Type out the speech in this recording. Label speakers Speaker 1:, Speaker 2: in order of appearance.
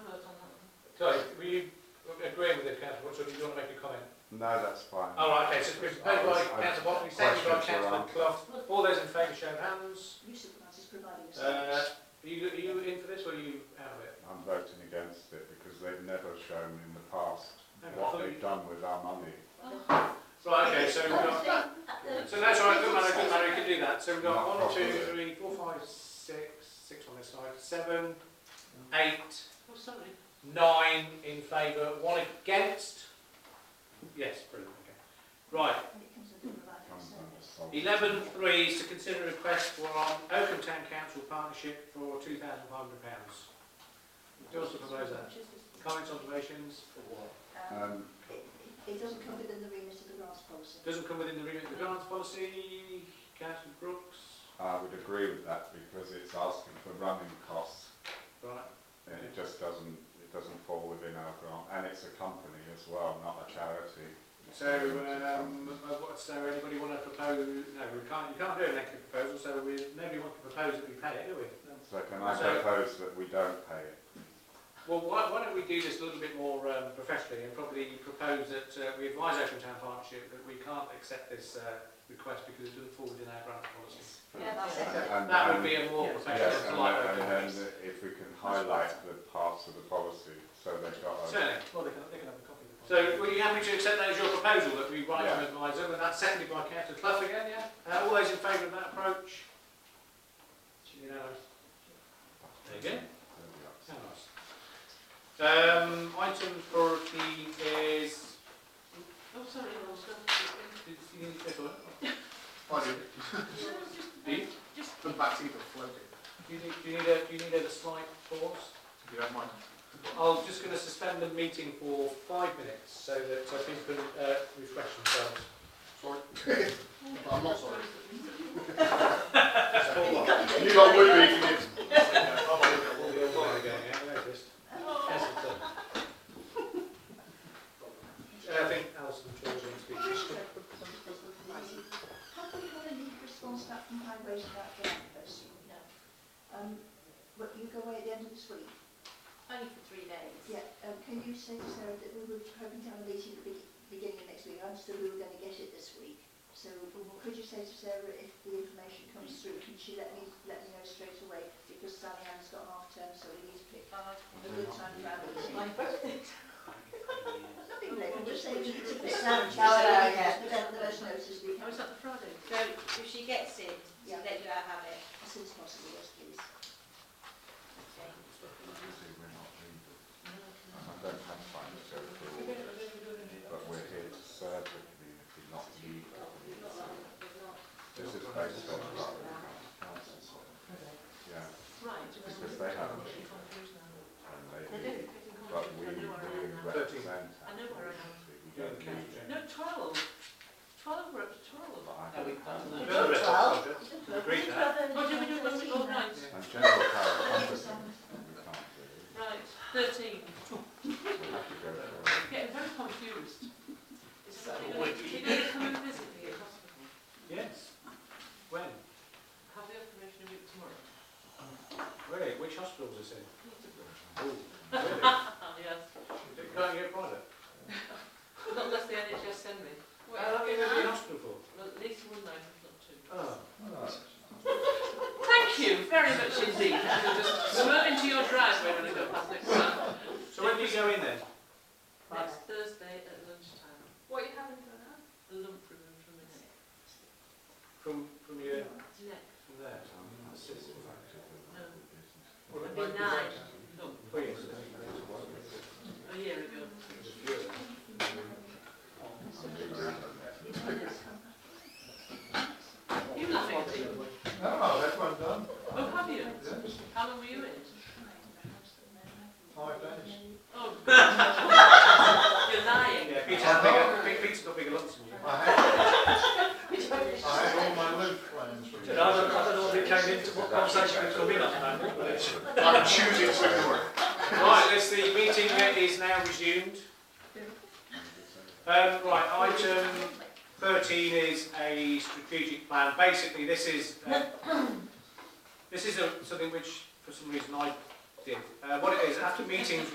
Speaker 1: councillor Watson, do you want to make a comment?
Speaker 2: No, that's fine.
Speaker 1: All Oh, right, okay, so it's been proposed by councillor Watson, seconded by
Speaker 2: Questions were
Speaker 1: councillor
Speaker 2: answered.
Speaker 1: Clough. All those in favour show of hands.
Speaker 3: You supervisors providing a
Speaker 1: Uh,
Speaker 3: service.
Speaker 1: Are you, are you in for this or are you out of it?
Speaker 2: I'm voting against it because they've never shown in the past
Speaker 1: Hang on, I
Speaker 2: what
Speaker 1: thought
Speaker 2: they've
Speaker 1: you-
Speaker 2: done with our money.
Speaker 1: Right, okay, so we've got,
Speaker 3: Oh,
Speaker 1: so that's all right, good man, good man, we can do that. So we've got
Speaker 2: Not
Speaker 1: one, two, three,
Speaker 2: properly.
Speaker 1: four, five, six, six on this side, seven, eight,
Speaker 3: Oh, sorry.
Speaker 1: nine in favour, one against. Yes, brilliant, okay. Right,
Speaker 3: And it comes with the providing
Speaker 2: Comes
Speaker 3: service.
Speaker 2: under solid-
Speaker 1: Eleven three is to consider a request for an Oakham Town Council partnership for two thousand five hundred pounds. Who wants to propose that? Comments, observations?
Speaker 3: Um,
Speaker 2: Um,
Speaker 3: it- It it doesn't come within the remit of the grants policy.
Speaker 1: Doesn't come within the remit of the grants policy. Councillor Brooks?
Speaker 2: I would agree with that because it's asking for running costs
Speaker 1: Right,
Speaker 2: and it just doesn't, it doesn't fall within our grant. And it's a company as well, not a charity.
Speaker 1: so, um, uh, what, so anybody want to propose, no, we can't, you can't do an extra proposal, so we, nobody wants to propose that we pay it, do we?
Speaker 2: So can I
Speaker 1: So-
Speaker 2: propose that we don't pay it?
Speaker 1: Well, why, why don't we do this a little bit more um, professionally and probably propose that uh, we advise Open Town Partnership that we can't accept this uh, request because it doesn't fall within our grant policy.
Speaker 3: Yeah, that's it.
Speaker 2: And-
Speaker 1: That would
Speaker 2: and-
Speaker 1: be a more
Speaker 4: Yes.
Speaker 1: professional
Speaker 2: Yes,
Speaker 1: yes,
Speaker 2: and
Speaker 1: polite way
Speaker 2: then-
Speaker 1: of
Speaker 2: and
Speaker 1: doing
Speaker 2: then
Speaker 1: this.
Speaker 2: if we can highlight the parts of the policy, so they've got a,
Speaker 1: Certainly.
Speaker 4: Well, they can, they can have a copy of the
Speaker 1: So, were you happy to accept that as your proposal that we write
Speaker 2: Yeah.
Speaker 1: to advise them, and that's seconded by Councillor Clough again, yeah? Uh, all those in favour of that approach? You know, there you go. How nice. Um, item priority is. Oh, sorry, I was going to. You need to take a look.
Speaker 5: I do.
Speaker 1: Do you,
Speaker 5: The back's either floating.
Speaker 1: do you need, do you need a, do you need a slight pause?
Speaker 5: If you don't mind.
Speaker 1: I'm just going to suspend the meeting for five minutes so that uh, people can uh, refresh themselves.
Speaker 5: Sorry. But I'm not sorry.
Speaker 1: Hold on.
Speaker 5: You lot would be if you didn't.
Speaker 1: We'll be all right again, yeah, I noticed. Yes, it's done. Uh, I think Alison George wants to speak.
Speaker 3: Have we had any response back from highways about the land person? No. Um, but you go away at the end of this week?
Speaker 6: Only for three days.
Speaker 3: Yeah, um, can you say to Sarah that we were hoping to have a meeting at the be- beginning of next week, I understood we were going to get it this week. So um, could you say to Sarah if the information comes through, can she let me, let me know straight away? Because Sally Ann's got half term, so we need to pick
Speaker 6: Uh,
Speaker 3: a good time for our meeting.
Speaker 6: my birthday.
Speaker 3: Nothing late, we'll just say we need to pick
Speaker 6: No,
Speaker 3: Sandwich, so
Speaker 6: no,
Speaker 3: we
Speaker 6: Oh, yeah.
Speaker 3: get the best- the best notice we
Speaker 6: Oh,
Speaker 3: can,
Speaker 6: it's not the Friday. So if she gets it,
Speaker 3: Yeah.
Speaker 6: let you out have it.
Speaker 3: as soon as possible, yes, please.
Speaker 2: obviously we're not legal. And I don't have time to go through all this, but we're here to serve the community, not lead the community. This is based on what the council said. Yeah,
Speaker 6: Right.
Speaker 2: because they have a leader and they do, but we do represent our community. We don't lead it.
Speaker 6: No, twelve. Twelve, we're up to twelve.
Speaker 2: But I don't have
Speaker 1: Further
Speaker 2: that.
Speaker 1: rest of the
Speaker 3: Well.
Speaker 1: subject.
Speaker 3: Please, rather
Speaker 6: Oh, do we
Speaker 3: than
Speaker 6: do it when we go
Speaker 3: tonight.
Speaker 6: nine?
Speaker 2: And general power of competence, we can't do.
Speaker 6: Right, thirteen.
Speaker 2: We'll have to go through.
Speaker 6: I'm getting very confused. Is somebody going to, you going to come and visit me at hospital?
Speaker 1: Yes. When?
Speaker 6: Have the operation a week tomorrow?
Speaker 1: Really? Which hospital is this in?
Speaker 6: Peterborough.
Speaker 1: Oh, really?
Speaker 6: Ah, yes.
Speaker 1: Can't you get private?
Speaker 6: Not unless the NHS send me.
Speaker 1: How long have you been in hospital for?
Speaker 6: Well, at least one night, if not two.
Speaker 1: Oh.
Speaker 6: Thank you very much indeed. You'll just swerve into your driveway when I go past next time.
Speaker 1: So when do you go in then?
Speaker 6: Next Thursday at lunchtime.
Speaker 7: What you having for now?
Speaker 6: The lump removed from the neck.
Speaker 1: From, from your,
Speaker 6: Neck.
Speaker 1: from there? That's it.
Speaker 6: No.
Speaker 1: Well,
Speaker 6: A benign lump.
Speaker 1: well, yes.
Speaker 6: A year ago. You laughing at me?
Speaker 5: No, that's what I've done.
Speaker 6: Oh, have you? How long were you in?
Speaker 5: Five days.
Speaker 6: Oh. You're lying.
Speaker 1: Yeah, Peter's got bigger, Peter's got bigger lumps than you.
Speaker 5: I had, I had all my loop plans for
Speaker 1: I don't, I don't know what it came into, what conversation it's coming up now, but it's-
Speaker 5: I'm choosing to ignore it.
Speaker 1: Right, let's, the meeting is now resumed. Um, right, item thirteen is a strategic plan. Basically, this is, uh, this is a, something which, for some reason, I did. Uh, what it is, after meetings